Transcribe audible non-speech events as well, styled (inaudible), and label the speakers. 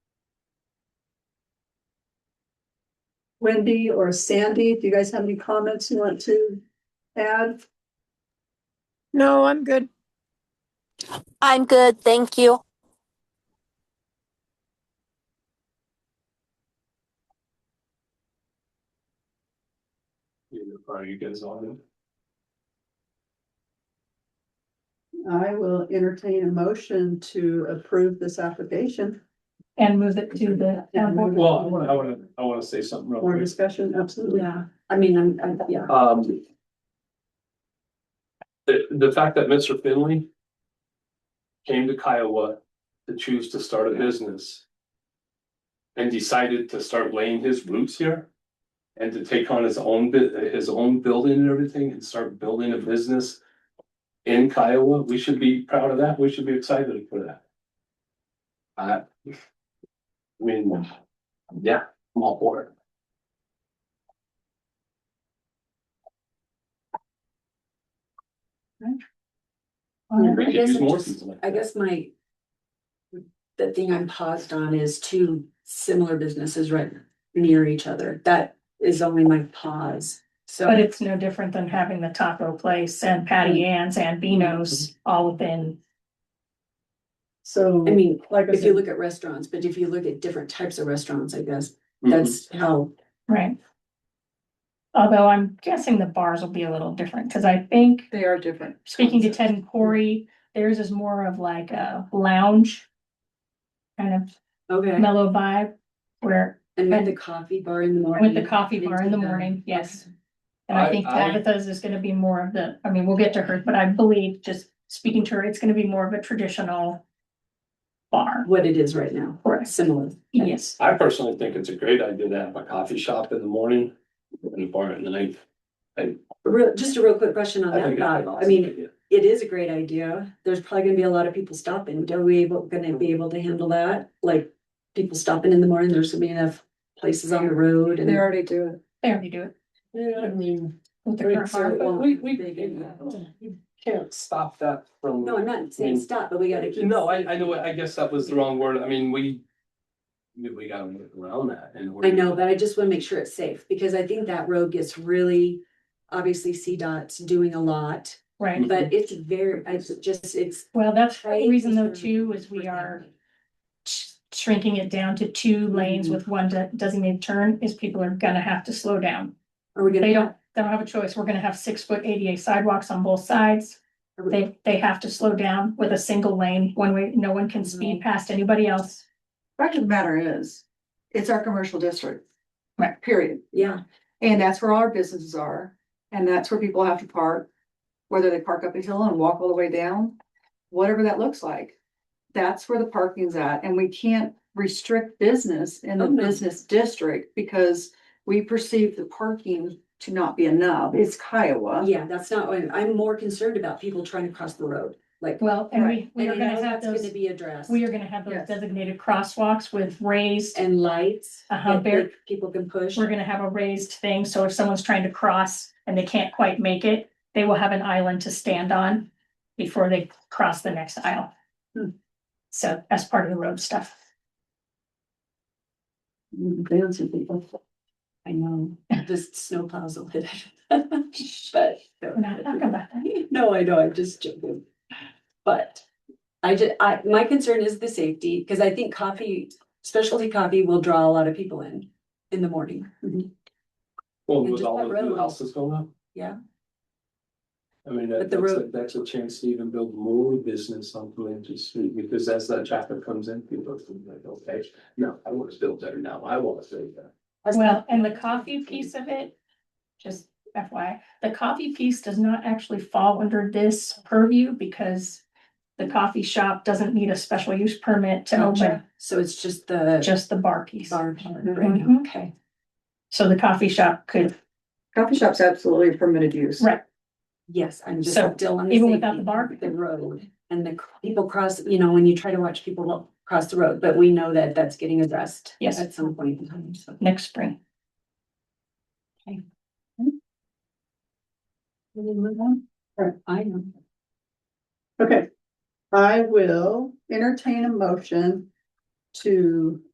Speaker 1: Wendy or Sandy, do you guys have any comments you want to add?
Speaker 2: No, I'm good.
Speaker 3: I'm good, thank you.
Speaker 4: Are you guys on?
Speaker 1: I will entertain a motion to approve this application.
Speaker 5: And move it to the town board.
Speaker 4: Well, I wanna, I wanna, I wanna say something real
Speaker 1: More
Speaker 4: quick.
Speaker 1: discussion, absolutely.
Speaker 5: Yeah, I mean, I'm, I'm, yeah.
Speaker 4: Um. The, the fact that Mr. Finley. Came to Kiowa to choose to start a business. And decided to start laying his roots here. And to take on his own bit, his own building and everything and start building a business. In Kiowa, we should be proud of that. We should be excited for that. I. I mean, yeah, I'm all for it.
Speaker 5: Um,
Speaker 4: We
Speaker 5: I
Speaker 4: could
Speaker 5: guess
Speaker 4: use
Speaker 5: I'm
Speaker 4: more
Speaker 5: just,
Speaker 4: people like
Speaker 5: I
Speaker 4: that.
Speaker 5: guess my. The thing I'm paused on is two similar businesses right near each other. That is only my pause.
Speaker 6: But
Speaker 5: So,
Speaker 6: it's no different than having the taco place and Patty Ann's and Beano's
Speaker 5: Mm-hmm.
Speaker 6: all within,
Speaker 1: So,
Speaker 5: I mean,
Speaker 1: like I
Speaker 5: if you
Speaker 1: said,
Speaker 5: look at restaurants, but if you look at different types of restaurants, I guess,
Speaker 4: Mhm.
Speaker 5: that's how.
Speaker 6: right? Although I'm guessing the bars will be a little different, because I think,
Speaker 2: They are different.
Speaker 6: speaking to Ted and Corey, theirs is more of like a lounge. Kind
Speaker 5: Okay.
Speaker 6: of mellow vibe, where,
Speaker 5: And with
Speaker 6: and-
Speaker 5: the coffee bar in the morning.
Speaker 6: with the coffee bar in the morning, yes. And
Speaker 4: I-
Speaker 6: I think
Speaker 4: I-
Speaker 6: Tabitha's is gonna be more of the, I mean, we'll get to her, but I believe, just speaking to her, it's gonna be more of a traditional. Bar,
Speaker 5: What it is right now,
Speaker 6: Correct.
Speaker 5: similar.
Speaker 6: yes.
Speaker 4: I personally think it's a great idea to have a coffee shop in the morning and a bar at night.
Speaker 5: Real, just a real quick question on
Speaker 4: I
Speaker 5: that
Speaker 4: think it's an
Speaker 5: thought. I
Speaker 4: awesome
Speaker 5: mean,
Speaker 4: idea.
Speaker 5: it is a great idea. There's probably gonna be a lot of people stopping. Are we able, gonna be able to handle that? Like, people stopping in the morning, there's gonna be enough places on the road
Speaker 2: They
Speaker 5: and.
Speaker 2: already do it.
Speaker 6: They already do it
Speaker 4: Yeah, I mean,
Speaker 6: with the
Speaker 4: Right,
Speaker 6: current
Speaker 4: so-
Speaker 6: bar.
Speaker 4: but we- we- you can't stop that from.
Speaker 5: No, I'm not saying
Speaker 6: Mm.
Speaker 5: stop, but we gotta keep.
Speaker 4: No, I, I know, I guess that was the wrong word. I mean, we. We gotta work around that and.
Speaker 5: I know, but I just wanna make sure it's safe because I think that road gets really, obviously CDOT's doing a lot,
Speaker 4: Mm.
Speaker 6: Right,
Speaker 5: but it's very, I just, it's.
Speaker 6: well, Mm-hmm. that's the
Speaker 5: right
Speaker 6: reason though
Speaker 5: for-
Speaker 6: too, is we are sh- shrinking it down to two lanes
Speaker 4: Mm-hmm.
Speaker 6: with one de- designated turn, is people are gonna have to slow down.
Speaker 5: Are we gonna?
Speaker 6: They don't, they don't have a choice, we're gonna have six foot ADA sidewalks on both sides.
Speaker 5: are we-
Speaker 6: They, they have to slow down with a single lane, one way, no one
Speaker 4: Mm-hmm.
Speaker 6: can speed past anybody else.
Speaker 7: Fact of the matter is, it's our commercial district.
Speaker 6: Right.
Speaker 7: Period.
Speaker 5: Yeah,
Speaker 7: And that's where all our businesses are, and that's where people have to park. Whether they park up a hill and walk all the way down, whatever that looks like. That's where the parking's at, and we can't restrict business in the
Speaker 5: Oh, no.
Speaker 7: business district because we perceive the parking to not be enough. It's Kiowa.
Speaker 5: Yeah, that's not, what- I'm more concerned about people trying to cross the road, like.
Speaker 6: Well, and we,
Speaker 5: Right.
Speaker 6: we are
Speaker 5: And I know
Speaker 6: gonna have
Speaker 5: that's gonna
Speaker 6: those,
Speaker 5: be addressed.
Speaker 6: we are gonna have those
Speaker 7: Yes.
Speaker 6: designated crosswalks with raised
Speaker 5: And lights.
Speaker 6: Uh-huh,
Speaker 5: that
Speaker 6: very-
Speaker 5: pe- People can push.
Speaker 6: we're gonna have a raised thing, so if someone's trying to cross and they can't quite make it, they will have an island to stand on before they cross the next aisle.
Speaker 5: Hmm.
Speaker 6: So that's part of the road stuff.
Speaker 5: Fancy people.
Speaker 6: (laughs)
Speaker 5: I know, this snow plows will hit it. (laughs) But.
Speaker 6: We're not talking about that.
Speaker 5: (laughs) No, I know, I'm just joking. But I just, I, my concern is the safety, because I think coffee, specialty coffee will draw a lot of people in, in the morning.
Speaker 4: Well,
Speaker 5: and
Speaker 4: with
Speaker 5: just
Speaker 4: all
Speaker 5: that
Speaker 4: the new
Speaker 5: road.
Speaker 4: houses going up.
Speaker 5: Yeah.
Speaker 4: I mean, that-
Speaker 5: But the
Speaker 4: that's, a-
Speaker 5: road-
Speaker 4: that's a chance to even build more business on Pulaski Street, because as that traffic comes in, people are thinking like, okay, no, I want to build there now. I want to stay there.
Speaker 6: Well, and the coffee piece of it, just FYI, the coffee piece does not actually fall under this purview because the coffee shop doesn't need a special use permit to open,
Speaker 5: So it's just the
Speaker 6: just the bar piece.
Speaker 5: bar part, right?
Speaker 6: Mhm.
Speaker 5: Okay.
Speaker 6: So the coffee shop could,
Speaker 7: Coffee shops absolutely permitted use.
Speaker 6: Right.
Speaker 5: Yes, I'm just
Speaker 6: So,
Speaker 5: still on the.
Speaker 6: even without the
Speaker 5: safety,
Speaker 6: bar?
Speaker 5: The road and the cr- people cross, you know, when you try to watch people walk across the road, but we know that that's getting addressed.
Speaker 6: Yes.
Speaker 5: At some point in time, so.
Speaker 6: next spring.
Speaker 1: Can we move on?
Speaker 5: I know.
Speaker 1: Okay, I will entertain a motion to